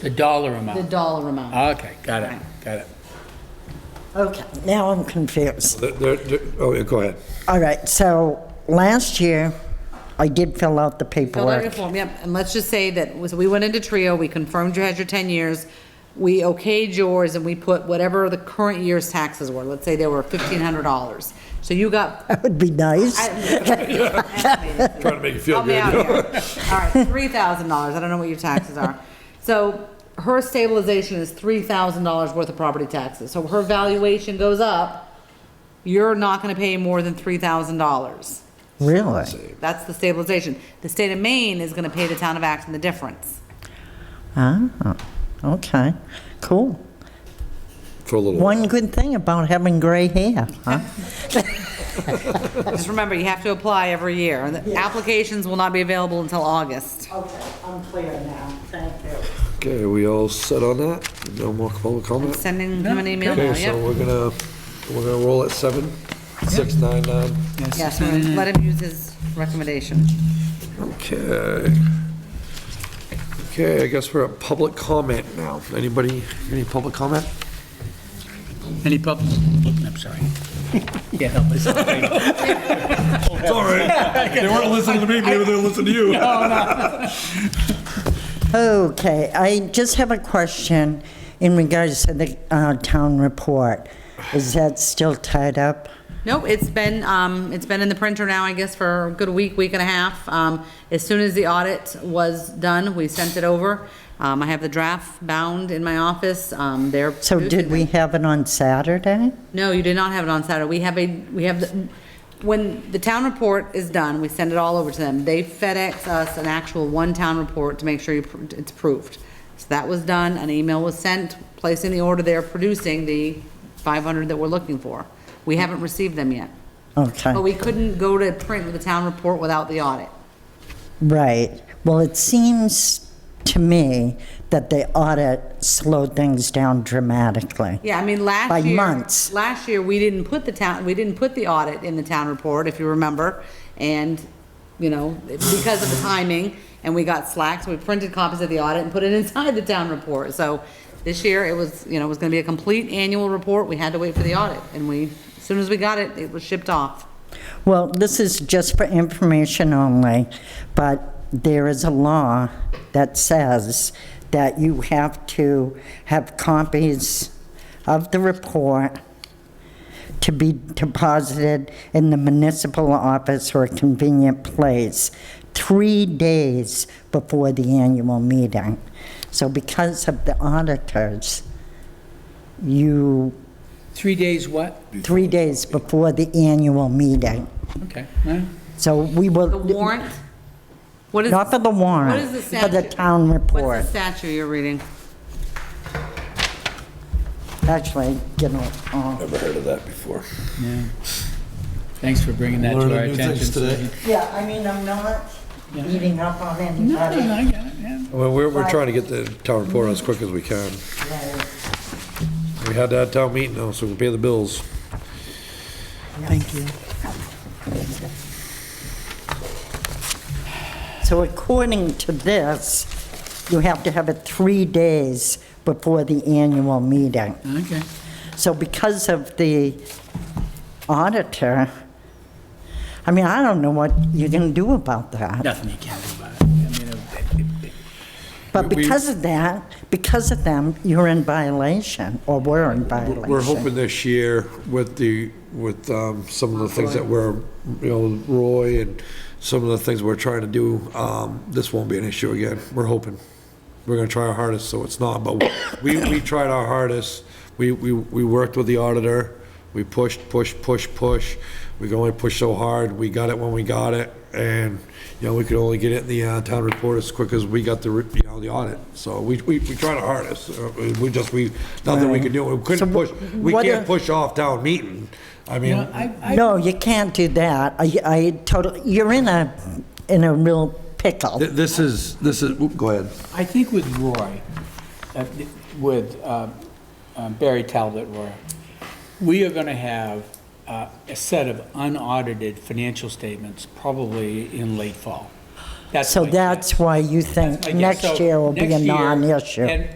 The dollar the amount. Ah, dollar amount. Okay, got it, Right. got it. Okay, now I'm confused. There- there- there- Oh, yeah, go ahead. All right, so last year, I did fill out the Fill out your paperwork. form, yep, and let's just say that, was- we went into Trio, we confirmed you had your 10 years, we okayed yours, and we put whatever the current year's taxes were, let's say they were $1,500. So you got. That would be nice. Trying Trying to make you feel good. All right, $3,000, I don't know what your taxes are. So her stabilization is $3,000 worth of property taxes, so her valuation goes up, you're not gonna pay more than $3,000. Really? That's the stabilization. The state of Maine is gonna pay the town of Acton the difference. Ah, okay, cool. For a little. while. One good thing about having gray hair, huh? Just remember, you have to apply every year, and the applications will not be available until August. Okay, I'm clear now, thank you. Okay, are we all set on that? No more public comment? Sending him an email now, Okay, so yep. we're gonna, we're gonna roll at seven, six, nine, nine. Yes, and let him use his recommendation. Okay. Okay, I guess we're at public comment now. Anybody, any public comment? Any public, I'm sorry. Can't help myself. It's all right. They weren't listening to me, maybe they'll listen to you. Okay, I just have a question in regards to the uh, town report. Is that still tied up? Nope, it's been, um, it's been in the printer now, I guess, for a good week, week and a half. Um, as soon as the audit was done, we sent it over. Um, I have the draft bound in my office, um, they're. So producing did them. we have it on Saturday? No, you did not have it on Saturday. We have a, we have, the when the town report is done, we send it all over to them. They FedEx us an actual one town report to make sure you pr- it's approved. So that was done, an email was sent, placing the order there, producing the 500 that we're looking for. We haven't received them yet. Okay, But we couldn't go to print with the town report without the audit. right. Well, it seems to me that the audit slowed things down dramatically. Yeah, I mean, last By year. months. Last year, we didn't put the town, we didn't put the audit in the town report, if you remember. And, you know, because of the timing, and we got slack, so we printed copies of the audit and put it inside the town report. So this year, it was, you know, it was gonna be a complete annual report. We had to wait for the audit, and we, as soon as we got it, it was shipped off. Well, this is just for information only, but there is a law that says that you have to have copies of the report to be deposited in the municipal office or a convenient place three days before the annual meeting. So because of the auditors, you, Three days what? three days before the annual meeting. Okay, well, So we will. The warrant? What is, Not for what the is warrant, the for the statute? town what's the report. statute you're reading? Actually, you know, uh, Never heard of that before. thanks for bringing that to our Learning new attention. things today. yeah, I mean, I'm not eating up on No, no, Oh, no, anybody. I got it, yeah. Well, we're, we're trying to get the town report as quick as we can. We had that town meeting though, so we can pay the bills. So according to this, you have to have it three days before the annual meeting. Okay. So because of the auditor, I mean, I don't know what you're going to do about that. Nothing you can do about it. I mean, uh, it- it- it- But We- we- because of that, because of them, you're in violation, or we're in violation. We're hoping this year with the, with um, some of the things that we're, you know, Roy and some of the things we're trying to do, um, this won't be an issue again. We're hoping. We're gonna try our hardest, so it's not, but we, we tried our hardest. We, we, we worked with the auditor. We pushed, pushed, pushed, pushed. We could only push so hard. We got it when we got it. And, you know, we could only get it in the uh, town report as quick as we got the, re- you know, the audit. So we, we, we tried our hardest. Uh, We just, we, nothing we could do. We couldn't push, we what can't if- push off town meeting. I You mean, know, I, I, No, you can't do that. I, I totally, you're in a, in a real pickle. th- this is, this is, oop, go ahead. I think with Roy, uh, with uh, um, Barry Talbot, Roy, we are going to have uh, a set of unaudited financial statements probably in late fall. That's So my guess. that's why you That's think my guess. next So year will be a next year- non-issue. and-